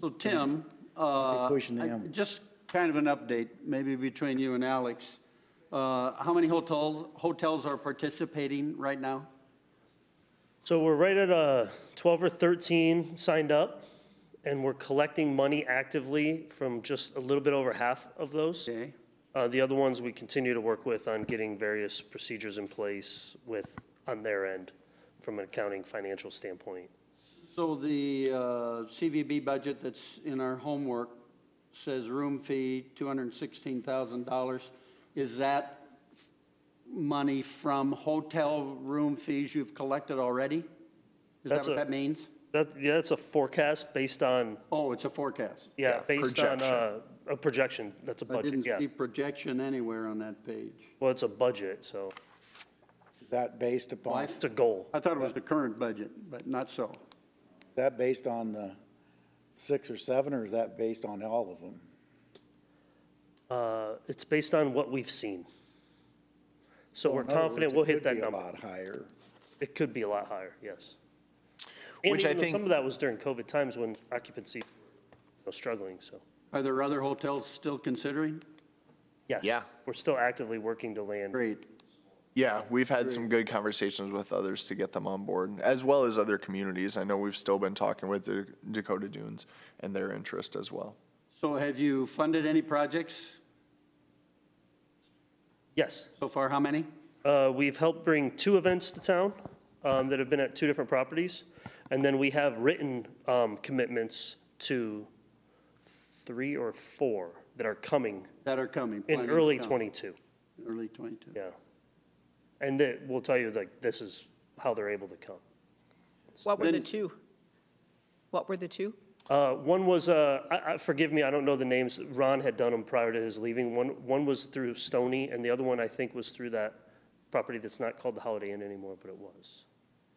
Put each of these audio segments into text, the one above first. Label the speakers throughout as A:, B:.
A: So Tim, uh,
B: pushing the
A: I-
B: envelope.
A: just kind of an update, maybe between you and Alex. Uh, How many hotels, hotels are participating right now?
C: So we're right at uh, 12 or 13 signed up, and we're collecting money actively from just a little bit over half of those.
A: Okay,
C: Uh, The other ones, we continue to work with on getting various procedures in place with, on their end, from an accounting financial standpoint.
A: so the uh, CVB budget that's in our homework says room fee, $216,000. Is that money from hotel room fees you've collected already? Is that
C: That's
A: what
C: a-
A: that means?
C: That, yeah, that's a forecast based on,
A: Oh, it's a forecast.
C: yeah,
D: Yeah,
C: based on uh, a projection, that's a
A: I
C: budget,
A: didn't
C: yeah.
A: see projection anywhere on that page.
C: Well, it's a budget, so
B: Is that based upon,
A: Life-
B: is
C: it's a goal.
A: I thought it was the current budget, but not so.
B: that based on the six or seven, or is that based on all of them?
C: Uh, It's based on what we've seen. So we're
B: In other words,
C: confident
B: Oh, it
C: we'll hit
B: could
C: that
B: be a
C: number.
B: lot higher.
C: It could be a lot higher, yes. And
D: Which I
C: even
D: think-
C: Some of that was during COVID times when occupancy was struggling, so,
A: Are there other hotels still considering?
C: yes.
D: Yeah.
C: We're still actively working to land.
A: Great.
D: Yeah, we've had some good conversations with others to get them on board, as well as other communities. I know we've still been talking with the Dakota Dunes and their interest as well.
A: So have you funded any projects?
C: Yes.
A: So far, how many?
C: Uh, We've helped bring two events to town um, that have been at two different properties. And then we have written um, commitments to three or four that are coming
A: That are coming?
C: in
A: planning to
C: early
A: come?
C: '22.
A: Early 22.
C: Yeah. And that, we'll tell you, like, this is how they're able to come.
E: What were the
A: Then-
E: two? What were the two?
C: Uh, One was, uh, I- I- forgive me, I don't know the names, Ron had done them prior to his leaving. One, one was through Stony, and the other one, I think, was through that property that's not called the Holiday Inn anymore, but it was.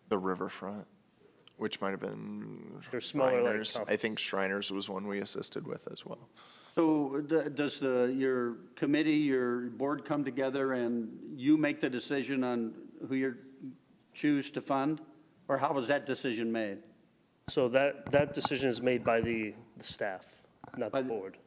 D: The riverfront, which might have been
C: They're smaller, like,
D: Shriners.
C: comp-
D: I think Shriners was one we assisted with as well.
A: So d- does the, your committee, your board come together and you make the decision on who you choose to fund? Or how was that decision made?
C: So that, that decision is made by the, the staff, not
A: By
C: the
A: the-
C: board.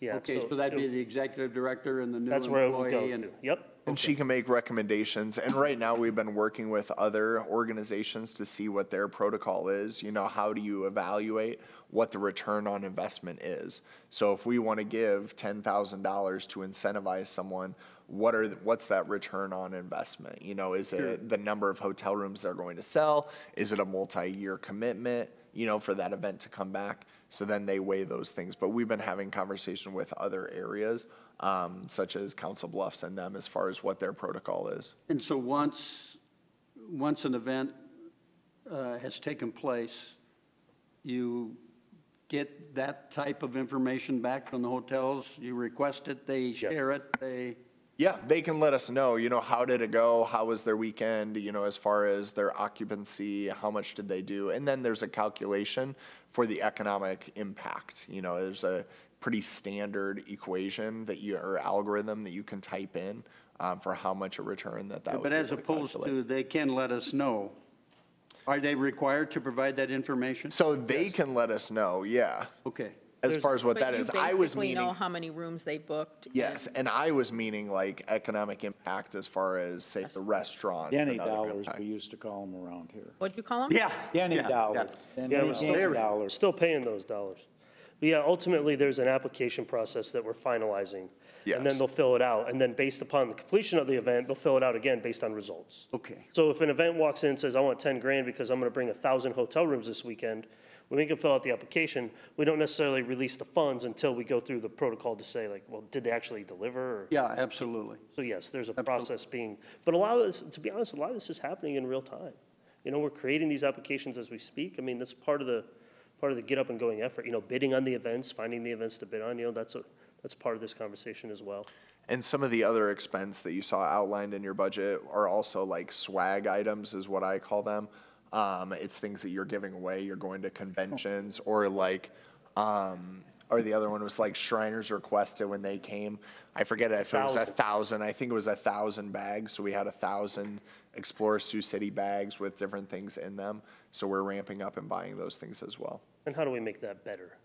C: Yeah.
A: Okay, so that'd be the executive director and the new
C: That's where it would go
A: employee and
C: to. Yep.
D: And she can make recommendations. And right now, we've been working with other organizations to see what their protocol is. You know, how do you evaluate what the return on investment is? So if we want to give ten thousand dollars to incentivize someone, what are, the- what's that return on investment? You know, is it the number of hotel rooms they're going to sell? Is it a multi-year commitment, you know, for that event to come back? So then they weigh those things. But we've been having conversation with other areas, um, such as Council Bluffs and them, as far as what their protocol is.
A: And so once, once an event uh, has taken place, you get that type of information back from the hotels, you request it, they share it, they,
D: Yeah, they can let us know, you know, how did it go? How was their weekend? You know, as far as their occupancy, how much did they do? And then there's a calculation for the economic impact. You know, there's a pretty standard equation that you, or algorithm that you can type in um, for how much a return that that would
A: but
D: be
A: as
D: able to
A: opposed
D: calculate.
A: to, they can let us know. Are they required to provide that information?
D: So they can let us know, yeah,
A: Okay.
D: as far as what that
E: But you
D: is. I was
E: basically know
D: meaning,
E: how many rooms they booked. and-
D: yes, and I was meaning like economic impact as far as, say, the restaurant.
B: Denny dollars, we used to call them around here.
E: What'd you call them?
A: Yeah.
B: Denny
A: yeah,
B: dollars.
A: yeah.
B: Denny
C: Yeah,
B: Denny
C: we're still, we're
B: dollars.
C: still paying those dollars. But yeah, ultimately, there's an application process that we're finalizing. And
D: Yes.
C: then they'll fill it out, and then based upon the completion of the event, they'll fill it out again based on results.
A: Okay.
C: So if an event walks in and says, I want ten grand because I'm gonna bring a thousand hotel rooms this weekend, we make them fill out the application. We don't necessarily release the funds until we go through the protocol to say like, well, did they actually deliver? or-
A: Yeah, absolutely.
C: So yes, there's a process being, but a lot of this, to be honest, a lot of this is happening in real time. You know, we're creating these applications as we speak. I mean, that's part of the, part of the get up and going effort, you know, bidding on the events, finding the events to bid on, you know, that's a, that's part of this conversation as well.
D: And some of the other expense that you saw outlined in your budget are also like swag items, is what I call them. Um, it's things that you're giving away. You're going to conventions or like, um, or the other one was like Shriners requested when they came. I forget if it was a
C: Thousand.
D: thousand. I think it was a thousand bags. So we had a thousand Explorer Sioux City bags with different things in them. So we're ramping up and buying those things as well.
C: And how do we make that better